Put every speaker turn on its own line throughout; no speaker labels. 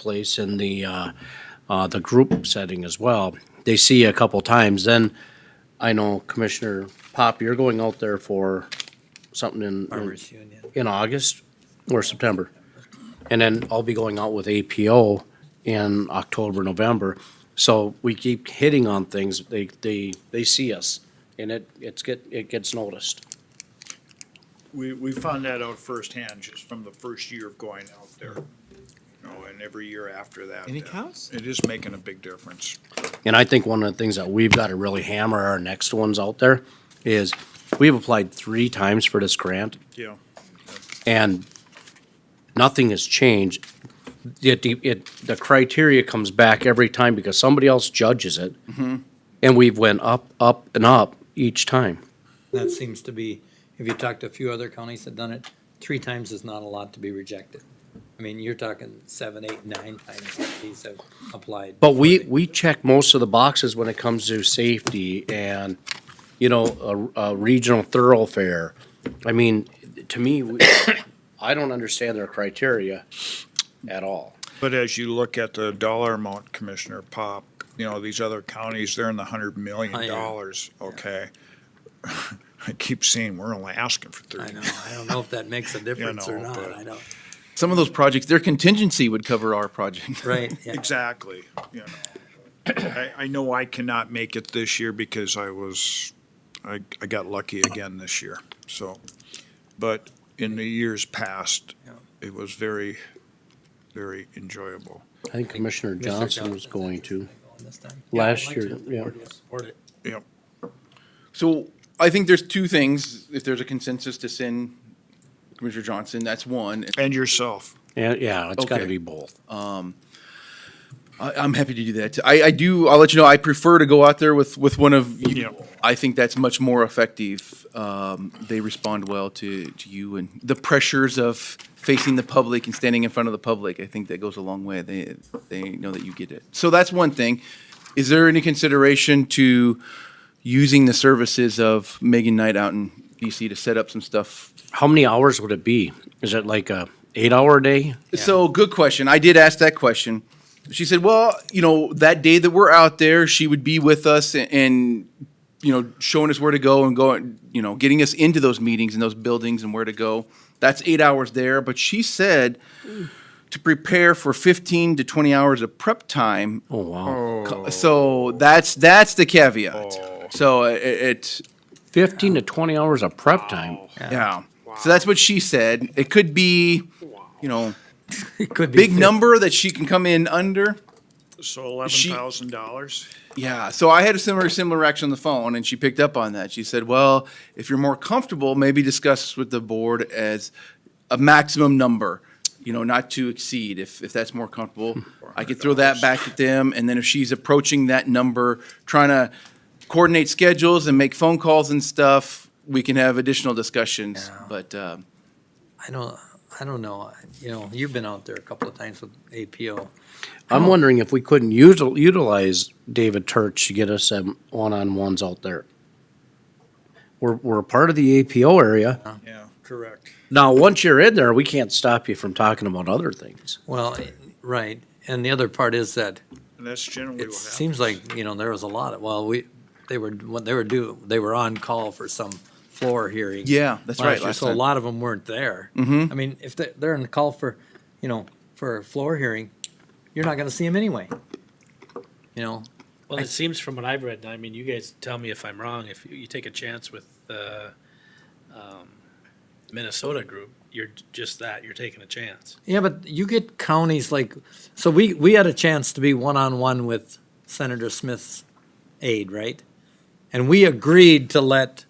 place in the, uh, uh, the group setting as well. They see you a couple times, then I know Commissioner Pop, you're going out there for something in- in,
Farmers Union.
in August or September. And then I'll be going out with APO in October, November. So we keep hitting on things, they, they, they see us and it, it's get, it gets noticed.
We, we found that out firsthand just from the first year of going out there. You know, and every year after that.
Any
uh,
cows?
It is making a big difference.
And I think one of the things that we've got to really hammer our next ones out there is we've applied three times for this grant
Yeah.
and nothing has changed. Yet the, it, the criteria comes back every time because somebody else judges it. And we've went up, up and up each time.
That seems to be, if you talk to a few other counties that done it, three times is not a lot to be rejected. I mean, you're talking seven, eight, nine times that these have applied.
But we, we check most of the boxes when it comes to safety and, you know, a, a regional thoroughfare. I mean, to me, we- I don't understand their criteria at all.
But as you look at the dollar amount, Commissioner Pop, you know, these other counties, they're in the hundred
I
million
know.
dollars, okay? I keep saying we're only asking for
I
thirty.
know, I don't know if that makes a difference or
know,
not,
but-
I don't,
Some of those projects, their contingency would cover our project.
right, yeah.
Exactly, you know. I, I know I cannot make it this year because I was, I, I got lucky again this year, so. But in the years past,
Yeah.
it was very, very enjoyable.
I think Commissioner
Mr.
Johnson was going to.
This time.
Last
Yeah, I'd
year,
like to.
yeah.
Or do you Support it.
Yep,
So I think there's two things, if there's a consensus to send Commissioner Johnson, that's one.
and yourself.
Yeah, yeah, it's gotta
Okay.
be both.
I, I'm happy to do that. I, I do, I'll let you know, I prefer to go out there with, with one of
Yeah.
you. I think that's much more effective. Um, they respond well to, to you and the pressures of facing the public and standing in front of the public. I think that goes a long way. They, they know that you get it. So that's one thing. Is there any consideration to using the services of Megan Knight out in DC to set up some stuff
How many hours would it be? Is it like a eight-hour day?
So good question. I did ask that question. She said, "Well, you know, that day that we're out there, she would be with us and, and you know, showing us where to go and going, you know, getting us into those meetings and those buildings and where to go. That's 8 hours there, but she said to prepare for 15 to 20 hours of prep time.
Oh, wow.
Co- So that's that's the caveat. So it, it
Fifteen to twenty hours of prep time.
yeah. So that's what she said. It could be, you know,
It could be.
big
fif-
number that she can come in under.
So eleven
She-
thousand dollars?
Yeah, so I had a similar similar reaction on the phone, and she picked up on that. She said, "Well, if you're more comfortable, maybe discuss with the board as a maximum number, you know, not to exceed. If if that's more comfortable, I could throw that back at them, and then if she's approaching that number, trying to coordinate schedules and make phone calls and stuff, we can have additional discussions.
Yeah.
But um,
I don't, I don't know, you know, you've been out there a couple of times with APO.
I'm wondering if we couldn't util- utilize David Turch to get us some one-on-ones out there. We're, we're a part of the APO area.
Yeah, correct.
Now, once you're in there, we can't stop you from talking about other things.
Well, right, and the other part is that
And that's generally what
It
happens.
seems like, you know, there was a lot of, well, we, they were, when they were due, they were on call for some floor hearing.
Yeah, that's right,
year,
last
So a
time.
lot of them weren't there. Mm-hmm. I mean, if they're, they're on call for, you know, for a floor hearing, you're not gonna see them anyway. You know,
Well, it seems from what I've read, and I mean, you guys tell me if I'm wrong, if you you take a chance with the um, Minnesota group, you're j- just that, you're taking a chance.
yeah, but you get counties like, so we, we had a chance to be one-on-one with Senator Smith's aide, right? And we agreed to let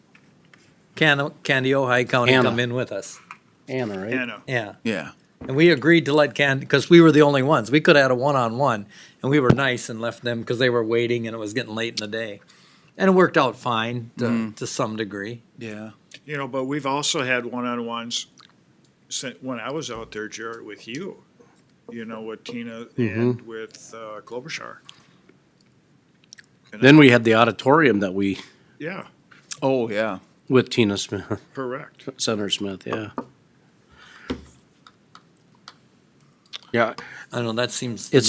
Can, Candy Ojai County
Anna.
come in with us,
Anna, right?
Anna,
yeah.
yeah,
And we agreed to let Can, because we were the only ones. We could have had a one-on-one, and we were nice and left them because they were waiting and it was getting late in the day. And it worked out fine to, to some degree.
yeah,
you know, but we've also had one-on-ones since, when I was out there, Jared, with you. You know, with Tina
Mm-hmm.
and with uh, Klobuchar.
Then we had the auditorium that we,
Yeah,
oh yeah."
with Tina Smith,
correct.
Senator Smith, yeah.
Yeah,
I don't know, that seems.
It's